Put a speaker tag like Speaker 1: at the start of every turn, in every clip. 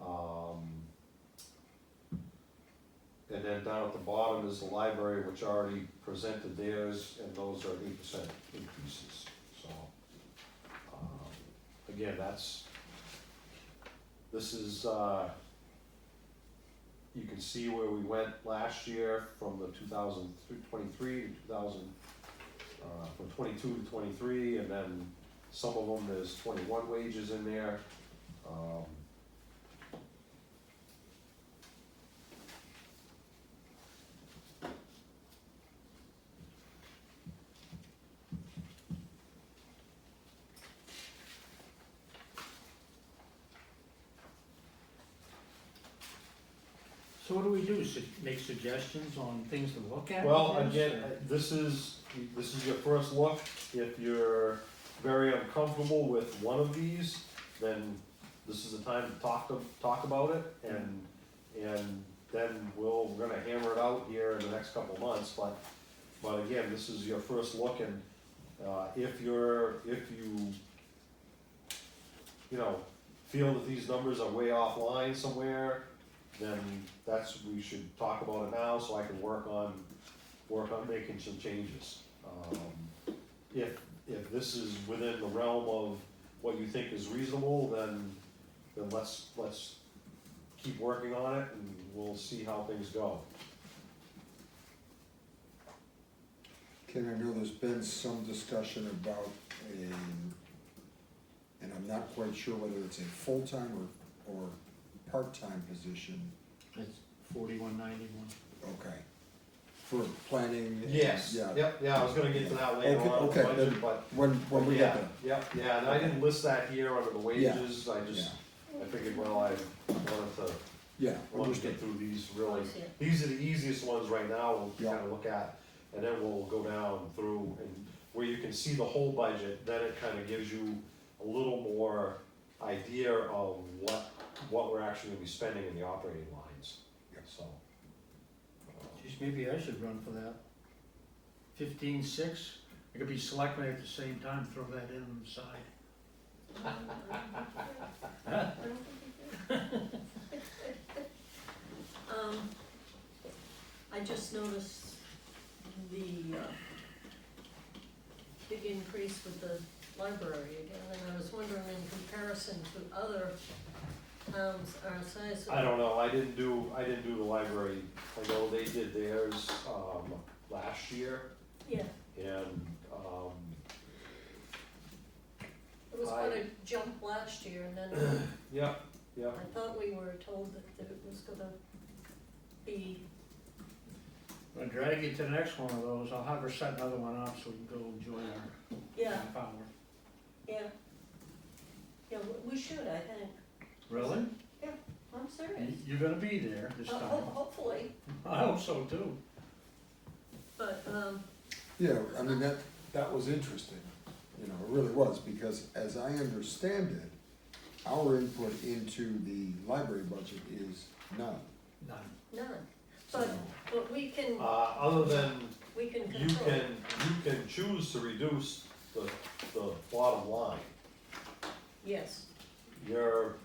Speaker 1: Um, And then down at the bottom is the library, which already presented theirs, and those are eight percent increases, so. um, Again, that's, this is, uh, you can see where we went last year from the two thousand twenty-three to two thousand, uh, from twenty-two to twenty-three, and then some of them, there's twenty-one wages in there. Um,
Speaker 2: So what do we do, Su- make suggestions on things to look at?
Speaker 1: Well,
Speaker 2: with this,
Speaker 1: again, uh, this is, this is your first look, if you're very uncomfortable with one of these, then this is the time to talk, to talk about it, and, and then we'll, we're gonna hammer it out here in the next couple of months, but, but again, this is your first look, and, uh, if you're, if you, you know, feel that these numbers are way offline somewhere, then that's, we should talk about it now, so I can work on work on making some changes. Um, If, if this is within the realm of what you think is reasonable, then, then let's, let's keep working on it and we'll see how things go.
Speaker 3: Ken, I know there's been some discussion about a, and I'm not quite sure whether it's a full-time or, or part-time position,
Speaker 2: It's forty-one ninety-one.
Speaker 3: okay, for planning. and- Yeah,
Speaker 1: Yep, yeah, I was gonna get to that later
Speaker 3: Okay,
Speaker 1: on, in the
Speaker 3: okay,
Speaker 1: budget,
Speaker 3: then-
Speaker 1: but.
Speaker 3: when, when we
Speaker 1: yeah,
Speaker 3: get there,
Speaker 1: Yep, yeah, and I didn't list that here under the
Speaker 3: Yeah,
Speaker 1: wages, I
Speaker 3: yeah,
Speaker 1: just, I figured, well, I wanted to,
Speaker 3: yeah,
Speaker 1: wanted to get
Speaker 3: understood,
Speaker 1: through these really.
Speaker 4: see it.
Speaker 1: These are the easiest ones right now, we'll
Speaker 3: Yeah.
Speaker 1: kinda look at, and then we'll go down through and where you can see the whole budget, then it kinda gives you a little more idea of what, what we're actually gonna be spending in the operating lines,
Speaker 3: Yeah.
Speaker 1: so. uh,
Speaker 2: Geez, maybe I should run for that. Fifteen-six, I could be selectman at the same time, throw that in on the side.
Speaker 4: I don't think you do. Um, I just noticed the, uh, big increase with the library again, and I was wondering in comparison to other towns our size.
Speaker 1: I don't know, I didn't do, I didn't do the library, I know they did theirs, um, last year,
Speaker 4: Yeah,
Speaker 1: and, um,
Speaker 4: it was
Speaker 1: I-
Speaker 4: quite a jump last year, and then
Speaker 1: yeah, yeah.
Speaker 4: I thought we were told that, that it was gonna be,
Speaker 2: I'll drag you to the next one of those, I'll have her set another one up so we can go enjoy our
Speaker 4: yeah,
Speaker 2: half hour.
Speaker 4: yeah. Yeah, we- we should, I think,
Speaker 2: Really?
Speaker 4: I'm serious.
Speaker 2: You- You're gonna be there this
Speaker 4: Ho-
Speaker 2: time.
Speaker 4: ho- Hopefully,
Speaker 2: I hope so too.
Speaker 4: but, um,
Speaker 3: yeah, I mean, that, that was interesting, you know, it really was, because as I understand it, our input into the library budget is none,
Speaker 2: None.
Speaker 4: none,
Speaker 3: so.
Speaker 4: but, but we can,
Speaker 1: Uh, other than
Speaker 4: we can
Speaker 1: You
Speaker 4: control.
Speaker 1: can, you can choose to reduce the, the bottom line.
Speaker 4: Yes,
Speaker 1: Your,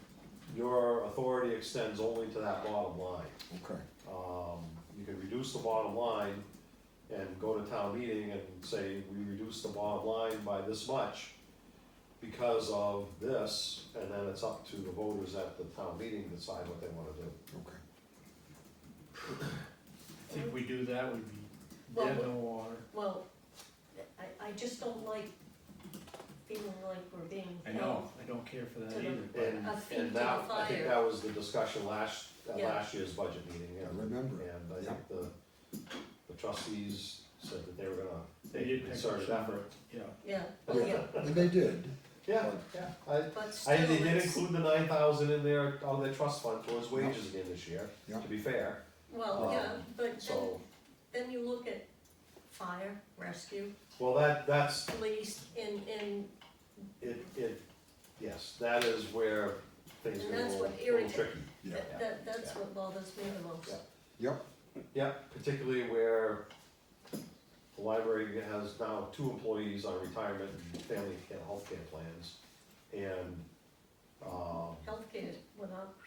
Speaker 1: your authority extends only to that bottom line.
Speaker 3: Okay,
Speaker 1: Um, you can reduce the bottom line and go to town meeting and say, we reduce the bottom line by this much because of this, and then it's up to the voters at the town meeting to decide what they wanna do.
Speaker 3: okay.
Speaker 2: I think we do that, we'd be
Speaker 4: Well,
Speaker 2: dead in
Speaker 4: we-
Speaker 2: the water.
Speaker 4: well, I, I just don't like feeling like we're being
Speaker 2: I
Speaker 4: held.
Speaker 2: know, I don't care for that
Speaker 4: To the-
Speaker 2: either, but.
Speaker 1: And,
Speaker 4: A feed to
Speaker 1: and
Speaker 4: the
Speaker 1: that, I think
Speaker 4: fire.
Speaker 1: that was the discussion last, at
Speaker 4: Yeah.
Speaker 1: last year's budget meeting, yeah.
Speaker 3: I remember.
Speaker 1: And I
Speaker 3: Yeah.
Speaker 1: think the, the trustees said that they were gonna
Speaker 2: They
Speaker 1: make
Speaker 2: did
Speaker 1: a
Speaker 2: pick
Speaker 1: concerted
Speaker 2: some.
Speaker 1: effort.
Speaker 2: Yeah,
Speaker 4: Yeah, oh, yeah,
Speaker 3: And they did,
Speaker 1: Yeah, yeah, I,
Speaker 4: but still,
Speaker 1: I, they did
Speaker 4: it's,
Speaker 1: include the nine thousand in their, out of their trust fund towards
Speaker 3: Yeah.
Speaker 1: wages again this year,
Speaker 3: Yeah.
Speaker 1: to be fair,
Speaker 4: well, yeah, but then,
Speaker 1: Uh, so,
Speaker 4: then you look at fire, rescue,
Speaker 1: well, that, that's,
Speaker 4: police, and, and,
Speaker 1: it, it, yes, that is where things
Speaker 4: And
Speaker 1: get a
Speaker 4: that's
Speaker 1: little,
Speaker 4: what
Speaker 1: little
Speaker 4: irritates-
Speaker 1: tricky.
Speaker 3: yeah,
Speaker 4: that, that, that's
Speaker 1: Yeah.
Speaker 4: what bothers me the most.
Speaker 1: Yeah.
Speaker 3: yep.
Speaker 1: Yeah, particularly where the library has now two employees on retirement and family care, healthcare plans, and, um,
Speaker 4: Healthcare went up